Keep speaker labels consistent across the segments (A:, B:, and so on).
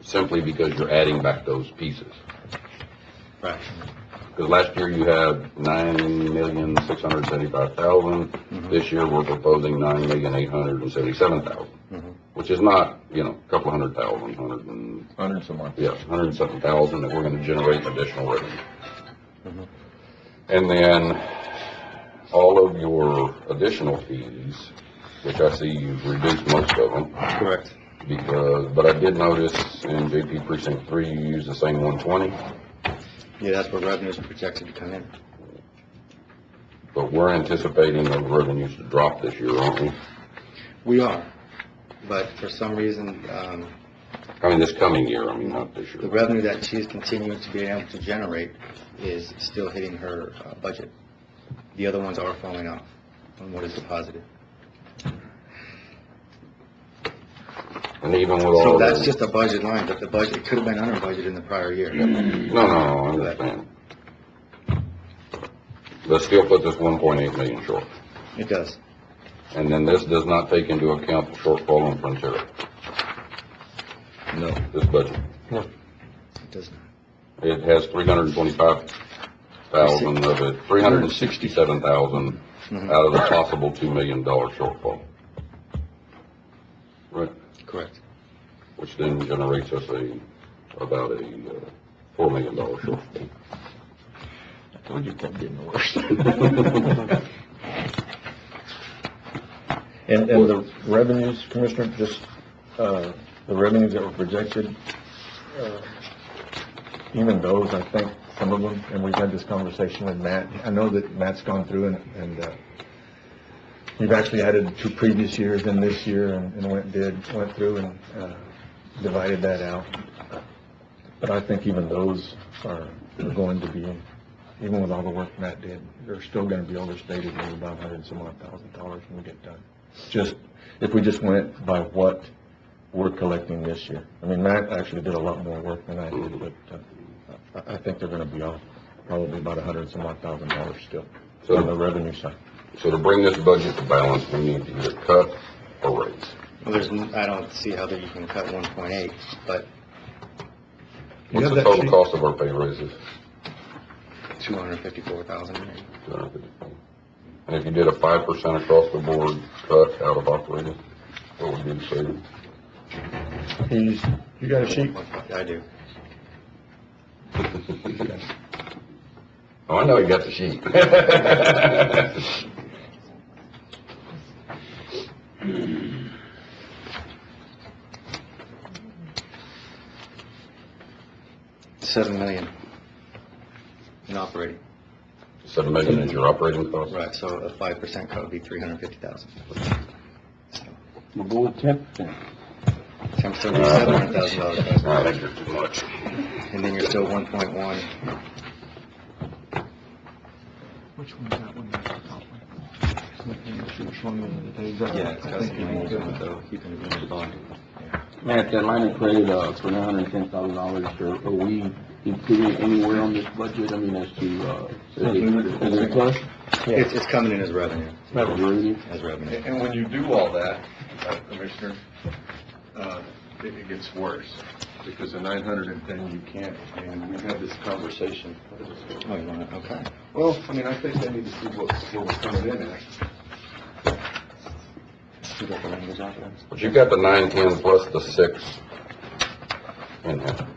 A: simply because you're adding back those pieces.
B: Right.
A: Because last year you had nine million, six hundred seventy-five thousand. This year, we're proposing nine million, eight hundred and seventy-seven
B: Mhm.
A: thousand, which is not, you know, a couple hundred thousand, hundred and,
C: Hundreds of months.
A: yeah, hundred and something thousand that we're gonna generate additional revenue.
B: Mhm.
A: And then, all of your additional fees, which I see you've reduced most of them,
B: Correct.
A: because, but I did notice in JP precinct three, you use the same one twenty,
B: Yeah, that's where revenues are projected to come in.
A: but we're anticipating the revenues to drop this year, aren't we?
B: We are, but for some reason, um,
A: I mean, this coming year, I mean, not this
B: the
A: year.
B: revenue that she's continuing to be able to generate is still hitting her uh, budget. The other ones are falling off on what is deposited.
A: And even with all
B: So
A: the...
B: that's just a budget line, but the budget, it could have been under budget in the prior year.
C: Mm-hmm.
A: No, no, no, I understand. That still puts us one point eight million short.
B: It does.
A: And then this does not take into account the shortfall in Frontier,
C: No.
A: this budget.
B: It does not.
A: It has three hundred and twenty-five thousand of it, three hundred and sixty-seven thousand
B: Mhm.
A: out of the possible two million dollar shortfall. Right,
B: Correct.
A: which then generates us a, about a uh, four million dollar shortfall.
C: I told you it kept getting worse. And, and the revenues, Commissioner, just, uh, the revenues that were projected, uh, even those, I think, some of them, and we've had this conversation with Matt, I know that Matt's gone through and, and, uh, we've actually added two previous years and this year and, and went, did, went through and, uh, divided that out. But I think even those are, are going to be, even with all the work Matt did, they're still gonna be overstated maybe about a hundred and some odd thousand dollars when we get done just, if we just went by what we're collecting this year. I mean, Matt actually did a lot more work than I did, but uh, I, I think they're gonna be off probably about a hundred and some odd thousand dollars still on the
A: So,
C: revenue side.
A: so to bring this budget to balance, we need to either cut or raise.
B: Well, there's, n- I don't see how that you can cut 1.8, but
A: What's the total cost of our pay raises?
B: 254,000 maybe.
A: And if you did a five percent across the board cut out of operating, what would be the savings?
C: He's, you got a sheet?
B: I do.
A: Oh, I know you got the sheet.
B: Seven million in operating.
A: Seven million is your operating cost?
B: Right, so a five percent cut would be three hundred and fifty thousand.
D: We'll go with ten percent.
B: Times seven hundred thousand dollars,
A: I think you're too much.
B: and then you're still one point one.
C: Which one's that one? Which one is that?
B: keeping it in the bond.
D: Matt, that line of credit, uh, for nine hundred and ten thousand dollars, are, are we including it anywhere on this budget? I mean, as to, uh, is it, is it plus?
B: It's, it's coming in as revenue,
D: Revenue?
B: as revenue.
E: And when you do all that, uh, Commissioner, uh, it it gets worse, because the 910, you can't, and we've had this conversation.
B: Oh, you want it, okay.
E: Well, I mean, I think they need to see what, what we're coming in at.
B: You got the language out there?
A: But you've got the nine, ten plus the six in there.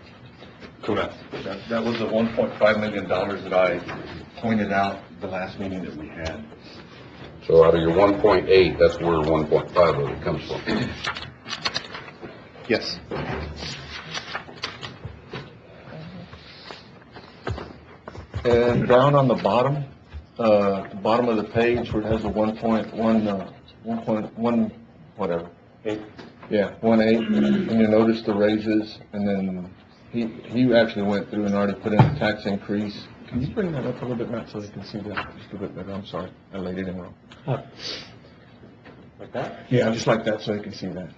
E: Correct. That that was the 1.5 million dollars that I pointed out the last meeting that we had.
A: So out of your one point eight, that's where one point five of it comes from.
B: Yes.
C: And down on the bottom, uh, the bottom of the page where it has a one point, one, uh, one point, one, whatever.
E: Eight.
C: Yeah, one eight, and you notice the raises, and then he, he actually went through and already put in a tax increase. Can you bring that up a little bit, Matt, so they can see that just a bit better? I'm sorry, I laid it in wrong.
B: Like that?
C: Yeah, just like that, so they can see that.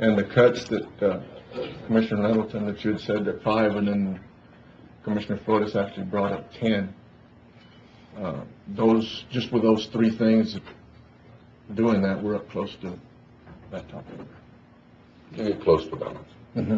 C: And the cuts that, uh, Commissioner Nettleton, that you had said that five, and then Commissioner Flores actually brought up ten. Uh, Those, just with those three things, doing that, we're up close to that topic.
A: You get close to balance.